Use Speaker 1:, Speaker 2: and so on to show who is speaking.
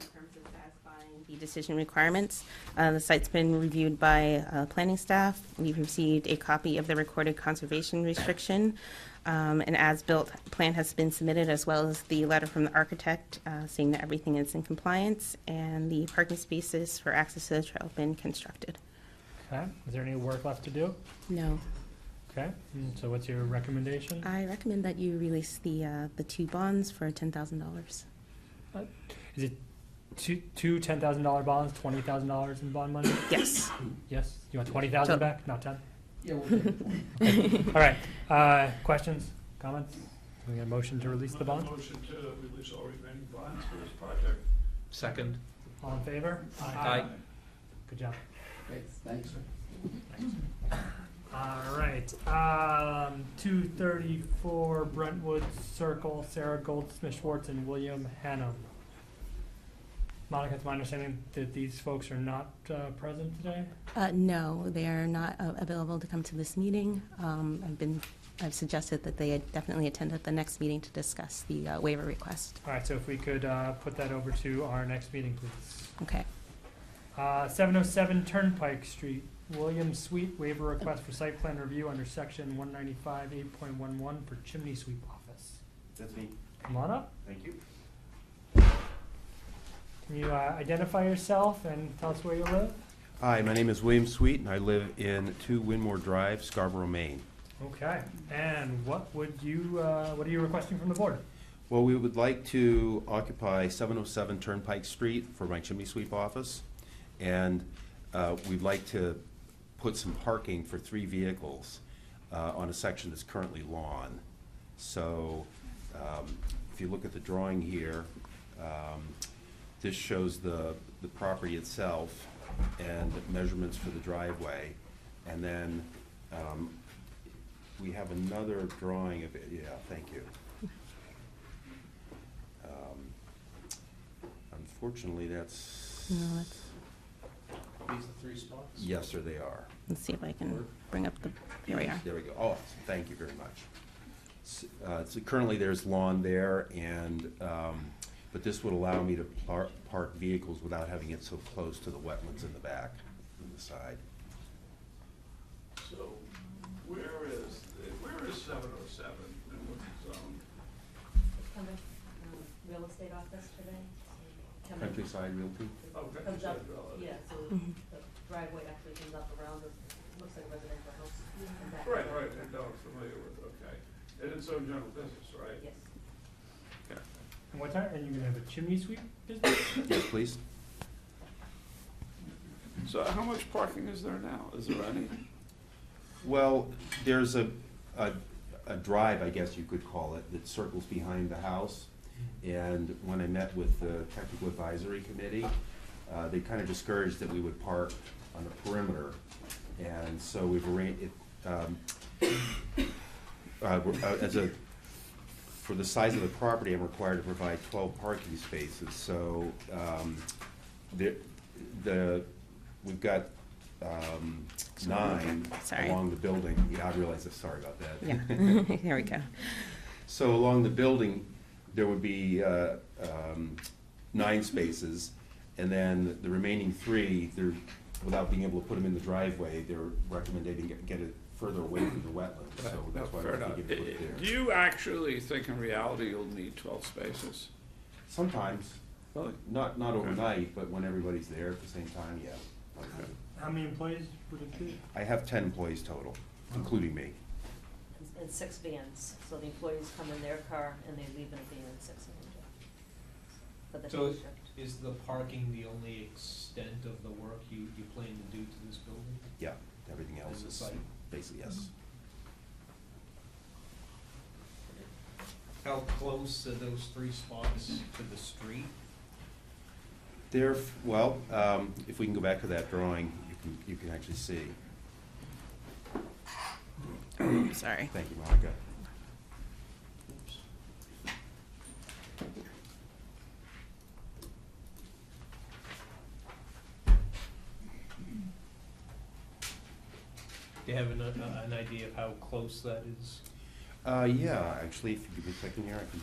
Speaker 1: um, satisfying the decision requirements. Uh, The site's been reviewed by uh, planning staff. We've received a copy of the recorded conservation restriction. Um, An as-built plan has been submitted, as well as the letter from the architect, uh, saying that everything is in compliance, and the parking spaces for access to the trail have been constructed.
Speaker 2: Okay, is there any work left to do?
Speaker 1: No,
Speaker 2: Okay, and so what's your recommendation?
Speaker 1: I recommend that you release the, uh, the two bonds for $10,000.
Speaker 2: Is it two, two ten thousand dollar bonds, twenty thousand dollars in bond money?
Speaker 1: Yes.
Speaker 2: Yes, you want twenty thousand
Speaker 1: So-
Speaker 2: back, not ten?
Speaker 3: Yeah, we'll take it.
Speaker 2: All right, uh, questions, comments? Can we get a motion to release the bonds?
Speaker 4: Motion to release all remaining bonds for this project.
Speaker 5: Second.
Speaker 2: All in favor?
Speaker 5: Aye.
Speaker 2: Good job.
Speaker 3: Great, thanks.
Speaker 2: All right, um, two thirty-four Brentwood Circle, Sarah Goldsmith Schwartz and William Hannum. Monica, it's my understanding that these folks are not, uh, present today?
Speaker 1: Uh, No, they are not uh, available to come to this meeting. Um, I've been, I've suggested that they definitely attend at the next meeting to discuss the uh, waiver request.
Speaker 2: All right, so if we could, uh, put that over to our next meeting, please.
Speaker 1: Okay.
Speaker 2: Uh, seven oh seven Turnpike Street, William Sweet, waiver request for site plan review under section one ninety-five eight point one one for chimney sweep office.
Speaker 6: That's me,
Speaker 2: Come on up,
Speaker 6: thank you.
Speaker 2: can you, uh, identify yourself and tell us where you live?
Speaker 6: Hi, my name is William Sweet, and I live in 2 Winmore Drive, Scarborough, Maine.
Speaker 2: Okay, and what would you, uh, what are you requesting from the board?
Speaker 6: Well, we would like to occupy 707 Turnpike Street for my chimney sweep office, and uh, we'd like to put some parking for three vehicles uh, on a section that's currently lawn. So um, if you look at the drawing here, um, this shows the, the property itself and measurements for the driveway. And then um, we have another drawing of it, yeah, thank you. Um, Unfortunately, that's.
Speaker 1: No, that's-
Speaker 5: These are three spots?
Speaker 6: Yes, sir, they are.
Speaker 1: Let's see if I can bring up the, here we are.
Speaker 6: There we go. Oh, thank you very much. S- uh, So currently, there's lawn there, and, um, but this would allow me to par- park vehicles without having it so close to the wetlands in the back, in the side.
Speaker 4: So where is, where is seven oh seven in what zone?
Speaker 7: Come in, um, real estate office today. so come in.
Speaker 6: Countryside Realty?
Speaker 4: Oh, Countryside
Speaker 7: Comes up,
Speaker 4: Realty.
Speaker 7: yeah, so the driveway actually comes up around, it looks like a residential house. and back
Speaker 4: Right,
Speaker 7: around.
Speaker 4: right, no, I'm familiar with, okay. And it's own general business, right?
Speaker 7: Yes.
Speaker 2: And what time, and you're gonna have a chimney sweep business?
Speaker 6: Yes, please?
Speaker 4: So how much parking is there now? Is there any?
Speaker 6: Well, there's a, a, a drive, I guess you could call it, that circles behind the house. And when I met with the technical advisory committee, uh, they kind of discouraged that we would park on the perimeter. And so we've arranged, it, um, uh, we're- uh, as a, for the size of the property, I'm required to provide twelve parking spaces, so, um, the, the, we've got, um, nine
Speaker 1: Sorry.
Speaker 6: along the building, yeah, I realize, this. sorry about that.
Speaker 1: Yeah, here we go.
Speaker 6: So along the building, there would be uh, um, nine spaces, and then the remaining three, they're, without being able to put them in the driveway, they're recommending get- get it further away from the wetlands, so that's why we're thinking put it
Speaker 4: Do
Speaker 6: there.
Speaker 4: you actually think in reality you'll need twelve spaces?
Speaker 6: Sometimes,
Speaker 4: Really?
Speaker 6: not, not overnight, but when everybody's there at the same time, yeah.
Speaker 2: How many employees would it be?
Speaker 6: I have ten employees total, including me.
Speaker 7: And- And six vans, so the employees come in their car and they leave in a van, six in their For the
Speaker 5: So
Speaker 7: day
Speaker 5: is-
Speaker 7: shift.
Speaker 5: Is the parking the only extent of the work you, you plan to do to this building?
Speaker 6: Yeah, everything else
Speaker 5: Is it
Speaker 6: is
Speaker 5: site?
Speaker 6: basically, yes.
Speaker 5: How close are those three spots to the street?
Speaker 6: There, well, um, if we can go back to that drawing, you can, you can actually see.
Speaker 1: Sorry.
Speaker 6: Thank you, Monica.
Speaker 5: Oops. Do you have an, an idea of how close that is?
Speaker 6: Uh, yeah, actually, if you give me a second here, I can